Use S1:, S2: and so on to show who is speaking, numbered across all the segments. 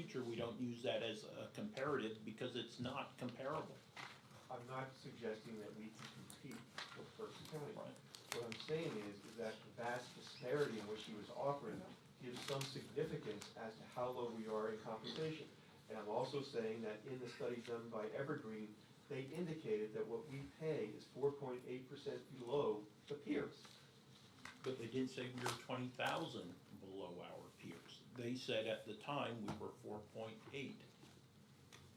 S1: don't use that as a comparative because it's not comparable.
S2: I'm not suggesting that we can compete with Berks County.
S1: Right.
S2: What I'm saying is, is that the vast disparity in which he was offering gives some significance as to how low we are in compensation. And I'm also saying that in the study done by Evergreen, they indicated that what we pay is four point eight percent below the peers.
S1: But they didn't say we were twenty thousand below our peers. They said at the time we were four point eight.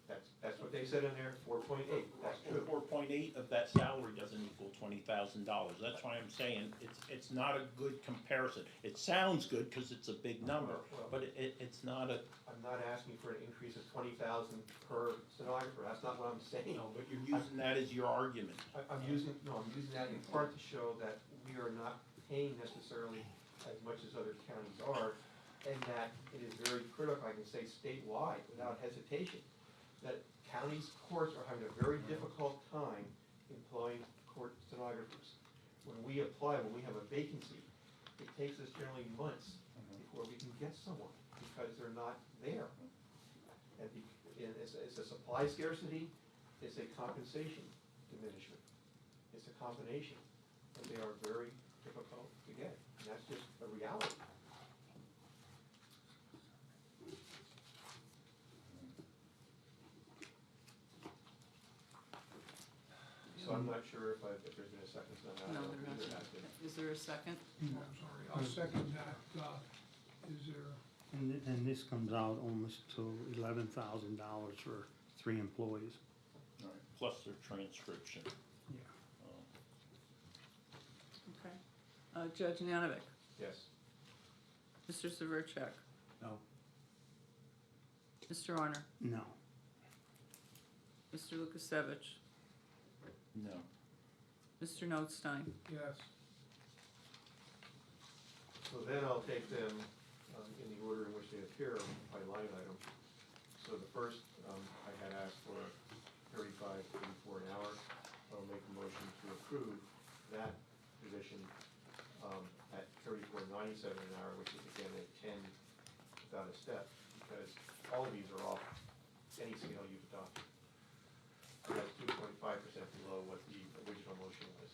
S2: That's, that's what they said in there, four point eight, that's true.
S1: Four point eight of that salary doesn't equal twenty thousand dollars. That's why I'm saying it's, it's not a good comparison. It sounds good because it's a big number, but it- it, it's not a,
S2: I'm not asking for an increase of twenty thousand per stenographer, that's not what I'm saying.
S1: you know, but you're using that as your argument.
S2: I, I'm using, no, I'm using that in part to show that we are not paying necessarily as much as other counties are, and that it is very critical, I can say statewide, without hesitation, that counties' courts are having a very difficult time employing court stenographers. When we apply, when we have a vacancy, it takes us generally months before we can get someone, because they're not there. And be- and it's, it's a supply scarcity, it's a compensation diminishment. It's a combination, and they are very difficult to get, and that's just a reality. So I'm not sure if I, if there's been a second, so I'm
S3: No,
S2: not.
S3: they're not.
S2: either has been.
S3: Is there a second?
S4: I'm sorry, I'll second that. Uh, Is there,
S5: And, th- and this comes out almost to eleven thousand dollars for three employees.
S1: Plus their transcription. Um,
S5: Yeah.
S3: Okay. Uh, Judge Nanovic,
S2: Yes,
S3: Mr. Severcek,
S5: No.
S3: Mr. Honor,
S5: No.
S3: Mr. Lukasevich,
S1: No.
S3: Mr. Notstein.
S4: yes,
S2: so then I'll take them um, in the order in which they appear by line item. So the first, um, I had asked for thirty-five, thirty-four an hour. I'll make a motion to approve that position um, at thirty-four ninety-seven an hour, which is again a ten without a step, because all of these are off any scale you've adopted. So That's two point five percent below what the original motion was.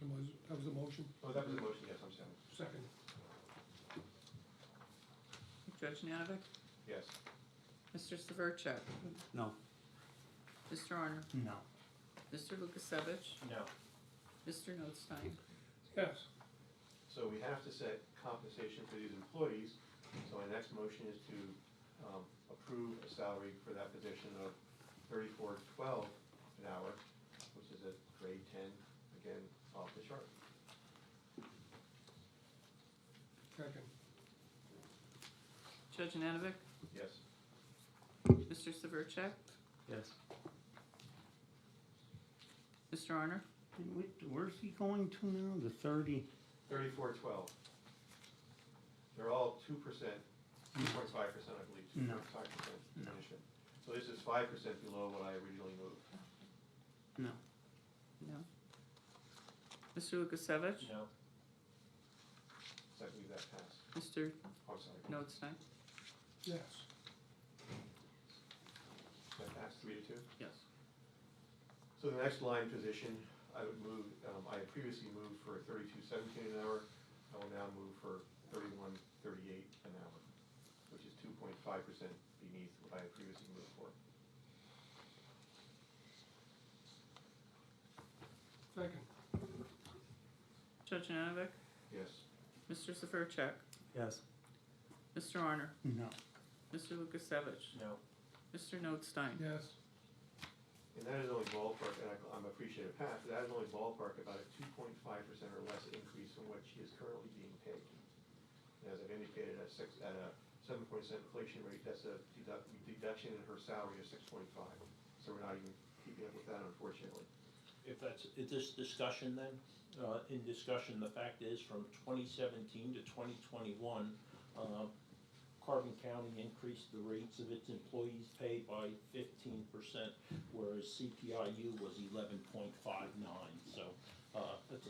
S4: that was, that was the motion,
S2: Oh, that was the motion, yes, I'm sorry.
S4: second,
S3: Judge Nanovic,
S2: Yes.
S3: Mr. Severcek,
S5: No.
S3: Mr. Honor,
S5: No.
S3: Mr. Lukasevich,
S1: No.
S3: Mr. Notstein.
S4: yes.
S2: So we have to set compensation for these employees, so my next motion is to um, approve a salary for that position of thirty-four twelve an hour, which is at grade ten, again, off the chart.
S4: Second,
S3: Judge Nanovic,
S2: Yes,
S3: Mr. Severcek,
S5: Yes.
S3: Mr. Honor,
S5: And wait, where's he going to now? The thirty?
S2: thirty-four twelve. They're all two percent, two point five percent, I believe, two
S5: No.
S2: point five percent
S5: No.
S2: diminishment. So this is five percent below what I originally moved.
S5: No.
S3: no. Mr. Lukasevich,
S1: No.
S2: So I believe that passed.
S3: Mr.
S2: I'm sorry,
S3: Notstein.
S4: yes,
S2: that passed three to two?
S3: Yes.
S2: So the next line position, I would move, um, I had previously moved for thirty-two seventeen an hour, I will now move for thirty-one thirty-eight an hour, which is two point five percent beneath what I had previously moved for.
S4: second,
S3: Judge Nanovic,
S2: Yes,
S3: Mr. Severcek,
S5: Yes.
S3: Mr. Honor,
S5: No.
S3: Mr. Lukasevich,
S1: No.
S3: Mr. Notstein.
S4: yes,
S2: and that is only ballpark, and I- I'm appreciative, Pat, but that is only ballpark about a two point five percent or less increase from what she is currently being paid. And as I've indicated, at six, at a seven percent inflation rate, that's a deduct, deduction in her salary of six point five, so we're not even keeping up with that unfortunately.
S1: If that's, if this discussion then, uh, in discussion, the fact is from twenty seventeen to twenty twenty-one, uh, Carbon County increased the rates of its employees' pay by fifteen percent, whereas CPIU was eleven point five nine, so, uh, that's a